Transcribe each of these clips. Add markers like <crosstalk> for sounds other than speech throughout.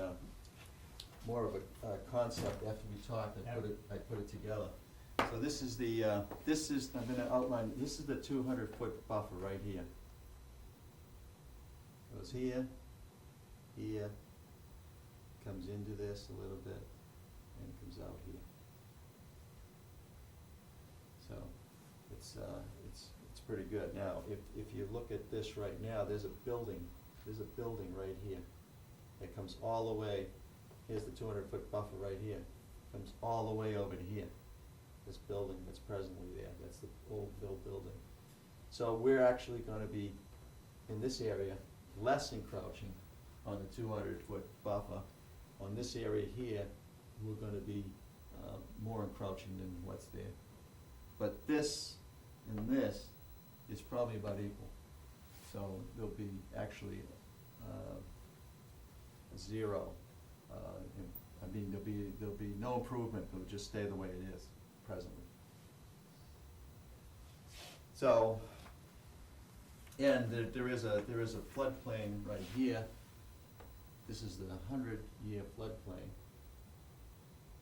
um, more of a, uh concept after we talked, I put it, I put it together. So this is the, uh, this is, I'm gonna outline, this is the two hundred foot buffer right here. Goes here, here, comes into this a little bit, and comes out here. So, it's, uh, it's, it's pretty good. Now, if, if you look at this right now, there's a building, there's a building right here that comes all the way, here's the two hundred foot buffer right here, comes all the way over to here. This building that's presently there, that's the old Bill building. So we're actually gonna be, in this area, less encroaching on the two hundred foot buffer. On this area here, we're gonna be, uh, more encroaching than what's there. But this and this is probably about equal. So there'll be actually, uh, zero. uh, in- I mean, there'll be, there'll be no improvement, it'll just stay the way it is presently. So, and there, there is a, there is a floodplain right here. This is the hundred-year floodplain.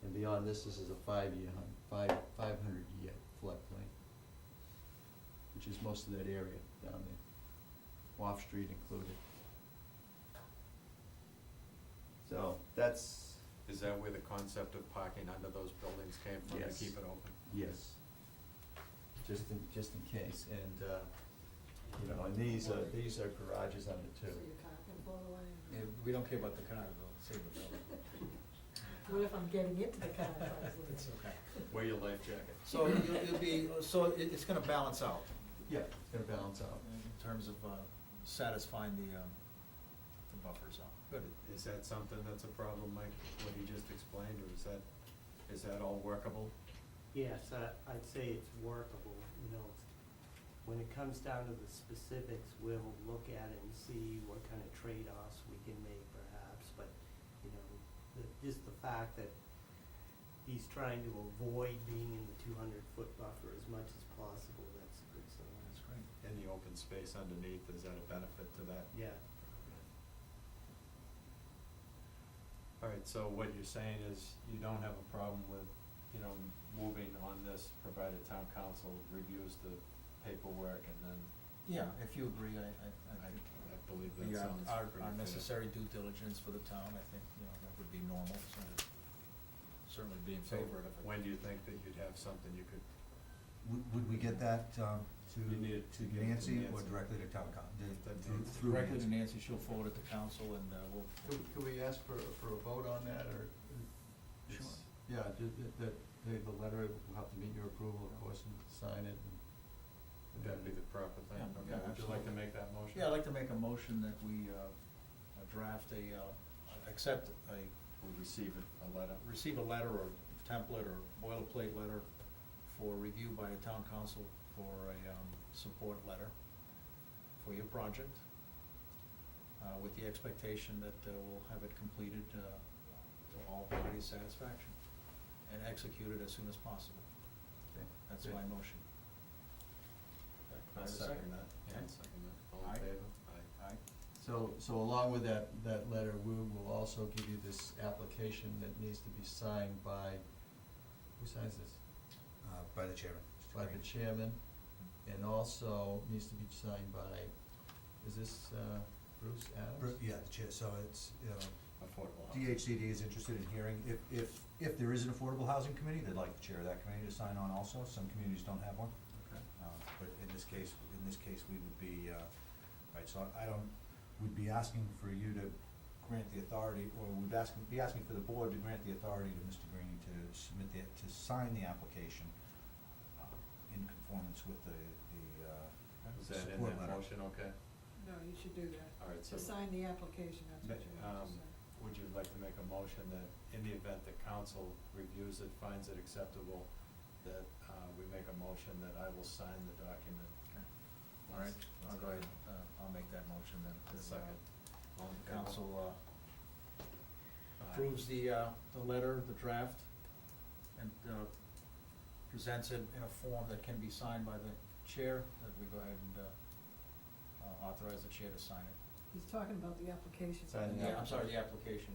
And beyond this, this is a five-year, hun- five, five hundred-year floodplain, which is most of that area down there, Wharf Street included. So that's, Is that where the concept of parking under those buildings came from, Yes. to keep it open? yes, just in, just in case, and, uh, you know, and these are, these are garages under So two. your car can fall away. Yeah, we don't care about the car, we'll save the building. <laughs> What if I'm getting into the car if <laughs> I was late? It's okay. Wear your life jacket. So it'll, it'll be, so it, it's gonna balance out Yeah, it's gonna balance out. in terms of, uh, satisfying the, um, the buffer zone. Good. Is that something that's a problem, Mike, what he just explained, or is that, is that all workable? Yes, I- I'd say it's workable, you know, it's- when it comes down to the specifics, we'll look at it and see what kind of trade-offs we can make perhaps, but, you know, the, just the fact that he's trying to avoid being in the two hundred foot buffer as much as possible, that's a good That's sign. great. And the open space underneath, is that a benefit to that? Yeah, All right, so what you're saying is you don't have a problem with, you know, moving on this, provided town council reviews the paperwork and then Yeah, if you agree, I, I, I, I think. I believe that we are- sounds Our, pretty fair. our necessary due diligence for the town, I think, you know, that would be normal, so certainly be in So favor of it. When do you think that you'd have something you could, Would, would we get that, um, You need it to to, give to to Nancy or Nancy. directly to town coun, the- That through, Nancy. through Directly to Nancy, Nancy? she'll forward it to council and, uh, we'll, Could, could we ask for, for a vote on that, or? it's- Sure. Yeah, the, the, the, the letter will have to meet your approval, of course, and sign it, and. would that be the proper thing? Yeah, Okay, yeah, would you like to absolutely. make that motion? Yeah, I'd like to make a motion that we uh, uh, draft a, uh, accept a, We receive a letter. receive a letter or template or boilerplate letter for review by the town council for a um, support letter for your project, uh, with the expectation that uh, we'll have it completed uh, to all parties' satisfaction and executed as soon as possible. Okay. That's my motion. I second that. I Yeah. second that. All Aye. in favor? Aye. Aye. So, so along with that, that letter, we will also give you this application that needs to be signed by, who signs this? Uh, by the chairman. Mr. By the Green. chairman, and also needs to be signed by, is this, uh, Bruce Adams? Br- Yeah, the chair, so it's, you know, Affordable housing. DHCD is interested in hearing, if, if, if there is an affordable housing committee, they'd like the chair of that committee to sign on also, some communities don't have one. Okay. Uh, But in this case, in this case, we would be, uh, right, so I don't, we'd be asking for you to grant the authority, or we'd ask, be asking for the board to grant the authority to Mr. Green to submit the, to sign the application uh, in conformance with the, the, uh, Is that in support that letter. motion, okay? No, you should do that. All right, so To sign the application, that's Ma- what you want um, to say. would you like to make a motion that in the event the council reviews it, finds it acceptable, that uh, we make a motion that I will sign the document? Okay. All right, I'll go ahead, uh, I'll make that motion then. A second. All in The favor? Council uh, Aye. approves the, uh, the letter, the draft, and uh, presents it in a form that can be signed by the chair, that we go ahead and uh, uh, authorize the chair to sign it. He's talking about the application. Sign And the Yeah, I'm sorry, the application.